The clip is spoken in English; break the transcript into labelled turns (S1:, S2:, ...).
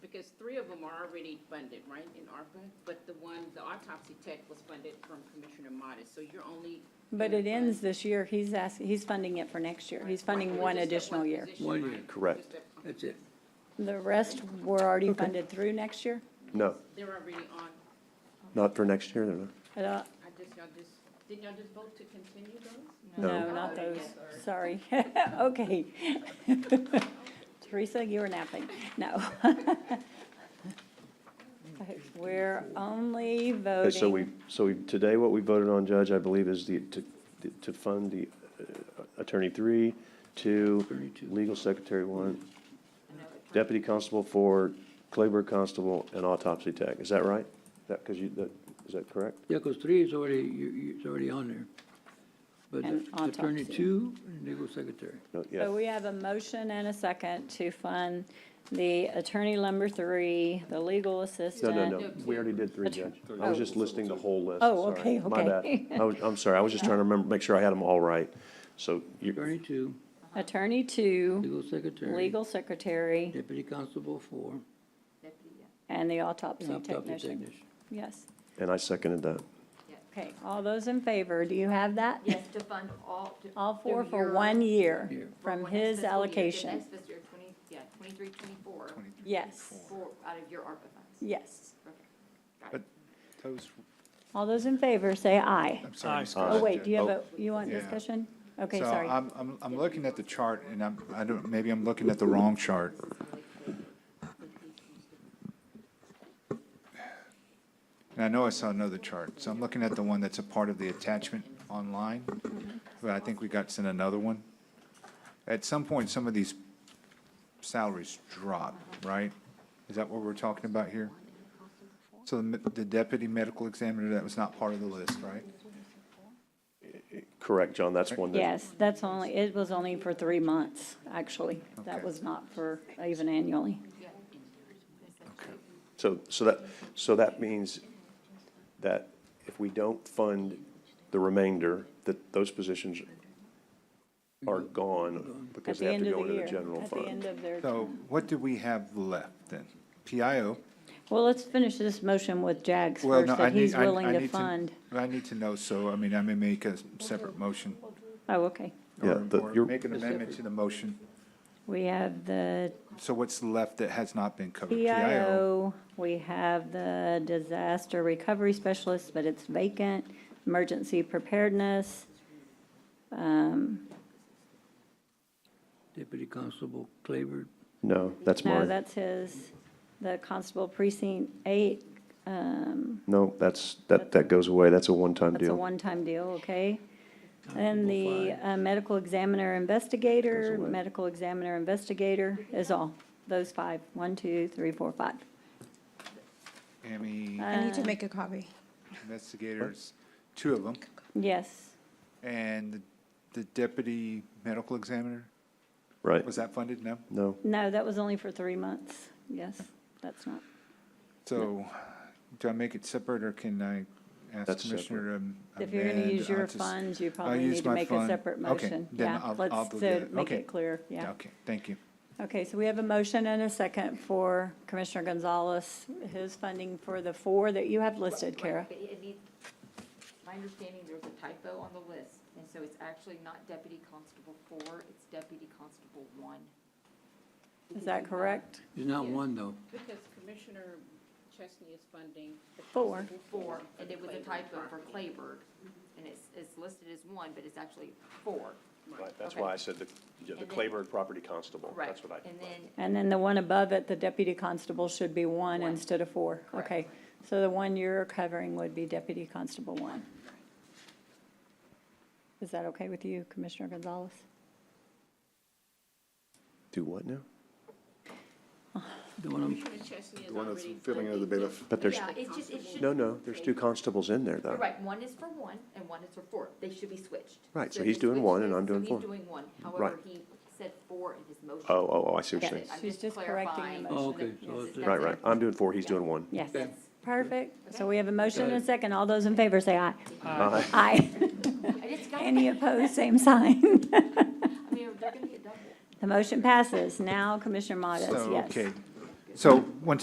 S1: because three of them are already funded, right, in ARPA? But the one, the autopsy tech was funded from Commissioner Modis, so you're only.
S2: But it ends this year. He's asking, he's funding it for next year. He's funding
S1: Right,
S2: one
S1: just that
S2: additional year.
S1: position,
S3: One year.
S1: right?
S4: Correct.
S1: Just that-
S3: That's it.
S2: The rest were already funded through next year.
S4: No,
S1: They're already on,
S4: not for next year, they're not.
S2: I don't,
S1: I just, y'all just, did y'all just vote to continue those?
S2: no,
S4: No.
S2: not those. Sorry. Okay. Teresa, you were napping. No. We're only
S4: Okay, so we,
S2: voting,
S4: so we, today what we voted on, Judge, I believe, is the, to, to fund the uh, Attorney three, two,
S3: Attorney two.
S4: Legal Secretary one, Deputy Constable four, Clayburg Constable, and Autopsy Tech. Is that right? That, because you, that, is that correct?
S3: Yeah, because three is already, you, you, it's already on there.
S2: And
S3: But attorney
S2: autopsy.
S3: two, and legal secretary.
S4: No,
S2: so
S4: yeah,
S2: Oh, we have a motion and a second to fund the attorney number three, the legal
S4: no,
S2: assistant.
S4: no, no, we already did three, Judge. I was just listing the whole list,
S2: Oh,
S4: sorry.
S2: okay,
S4: My
S2: okay.
S4: bad. I was, I'm sorry, I was just trying to remember, make sure I had them all right. So you,
S3: Attorney two,
S2: Attorney two,
S3: legal secretary.
S2: legal secretary,
S3: Deputy constable four,
S1: Deputy,
S5: uh,
S1: yeah.
S2: and the
S3: and
S2: autopsy
S3: autopsy
S2: technician.
S3: technician.
S2: Yes.
S4: and I seconded that.
S2: Okay, all those in favor, do you have that?
S5: Yes, to fund all. to-
S2: All four
S5: to
S2: for
S5: your-
S2: one year
S3: Year.
S5: for
S2: from
S5: one next
S2: his
S5: fiscal year, the
S2: allocation.
S5: Next fiscal year, twenty, yeah, twenty-three, twenty-four,
S2: Yes,
S5: four out of your ARPA funds.
S2: yes.
S5: Okay, got it.
S6: Those,
S2: All those in favor, say aye.
S6: I'm sorry. Ms.
S2: Oh,
S6: Costa.
S2: wait, do you have a,
S4: Oh.
S2: you want
S6: Yeah.
S2: discussion? Okay,
S6: So
S2: sorry.
S6: I'm, I'm, I'm looking at the chart and I'm, I don't, maybe I'm looking at the wrong chart. And I know I saw another chart, so I'm looking at the one that's a part of the attachment online, but I think we got sent another one. At some point, some of these salaries drop, right? Is that what we're talking about here? So the me- the deputy medical examiner, that was not part of the list, right?
S4: Correct, John, that's one that
S2: Yes, that's only, it was only for three months, actually. That
S6: Okay.
S2: was not for even annually.
S4: So, so that, so that means that if we don't fund the remainder, that those positions are gone
S2: Mm-hmm. At
S4: because
S2: the
S4: they have
S2: end of
S4: to go
S2: the
S4: into the
S2: year,
S4: general
S2: at the end
S4: fund.
S2: of their,
S6: So what do we have left then? PIO?
S2: well, let's finish this motion with Jags
S6: Well,
S2: first,
S6: no, I
S2: that he's
S6: need, I I
S2: willing to
S6: need
S2: fund.
S6: to, I need to know, so, I mean, I may make a separate motion.
S2: Oh, okay.
S4: Yeah,
S6: or-
S4: the-
S6: or
S4: your-
S6: Make an amendment to the motion.
S2: We have the
S6: So what's left that has not been covered?
S2: PIO, we have the disaster recovery specialist, but it's vacant, emergency preparedness,
S3: Deputy constable Claver,
S4: No, that's
S2: no,
S4: mine.
S2: that's his, the constable precinct eight,
S4: No, that's, that, that goes away. That's a one-time
S2: that's a
S4: deal.
S2: one-time deal, okay? And the
S3: Constable
S2: uh, medical examiner investigator,
S4: Goes away.
S2: medical examiner investigator is all, those five, one, two, three, four, five.
S6: Amy
S2: Uh,
S7: I need to make a copy.
S6: investigators, two of them,
S2: Yes,
S6: and the- the deputy medical examiner,
S4: Right?
S6: was that funded? No?
S4: No,
S2: no, that was only for three months, yes, that's not,
S6: So do I make it separate or can I ask
S4: That's
S6: Commissioner? um,
S2: if you're gonna
S6: amend?
S2: use your
S6: I'll just-
S2: funds, you
S6: I'll
S2: probably
S6: use
S2: need to
S6: my
S2: make a
S6: fund.
S2: separate
S6: Okay,
S2: motion,
S6: then
S2: yeah,
S6: I'll- I'll
S2: let's,
S6: do
S2: so
S6: that.
S2: make
S6: Okay.
S2: it clear, yeah.
S6: Okay, thank you.
S2: Okay, so we have a motion and a second for Commissioner Gonzalez, his funding for the four that you have listed, Kara.
S5: But it needs, my understanding, there was a typo on the list, and so it's actually not deputy constable four, it's deputy constable one.
S2: Is that correct?
S3: He's not one, though.
S1: Because Commissioner Chesney is funding. the
S2: Four.
S1: constable
S5: Four, and it was a
S1: Clayburg
S5: typo for
S1: property.
S5: Clayburg, and it's, it's listed as one, but it's actually four.
S4: right, that's
S5: Okay.
S4: why I said the, yeah, the
S5: And then-
S4: Clayburg Property Constable.
S5: Right.
S4: That's what I.
S5: And then
S2: And then the one above it, the deputy constable should be one
S5: One.
S2: instead of four.
S5: Correct.
S2: Okay, so the one you're covering would be deputy constable one. Is that okay with you, Commissioner Gonzalez?
S4: Do what now?
S3: The one I'm,
S1: Commissioner Chesney is
S8: The one that's
S1: already
S8: filling in the
S1: funding
S8: bailiff.
S4: But there's,
S5: Yeah, it's just, it should.
S4: no, no, there's two constables in there,
S5: You're
S4: though.
S5: right, one is for one and one is for four. They should be switched.
S4: Right, so
S5: if
S4: he's
S5: you
S4: doing
S5: switch
S4: one and
S5: this-
S4: I'm doing four.
S5: So he's doing one. However, he said four in his motion.
S4: Oh, oh, oh, I see what
S2: Yeah,
S4: you're saying.
S5: I'm
S2: She's
S5: just
S2: just correcting the
S5: clarifying.
S3: oh,
S2: motion.
S3: okay, so it's,
S5: Yes.
S4: Right, right. I'm doing four, he's doing one.
S2: Yes,
S3: Okay.
S2: perfect. So we have a motion and a second. All those in favor say aye. Aye.
S5: I just got, I
S2: Any
S5: mean,
S2: opposed, same sign.
S5: they're gonna get double.
S2: The motion passes. Now Commissioner Modas,
S6: So,
S2: yes.
S6: okay. So once again.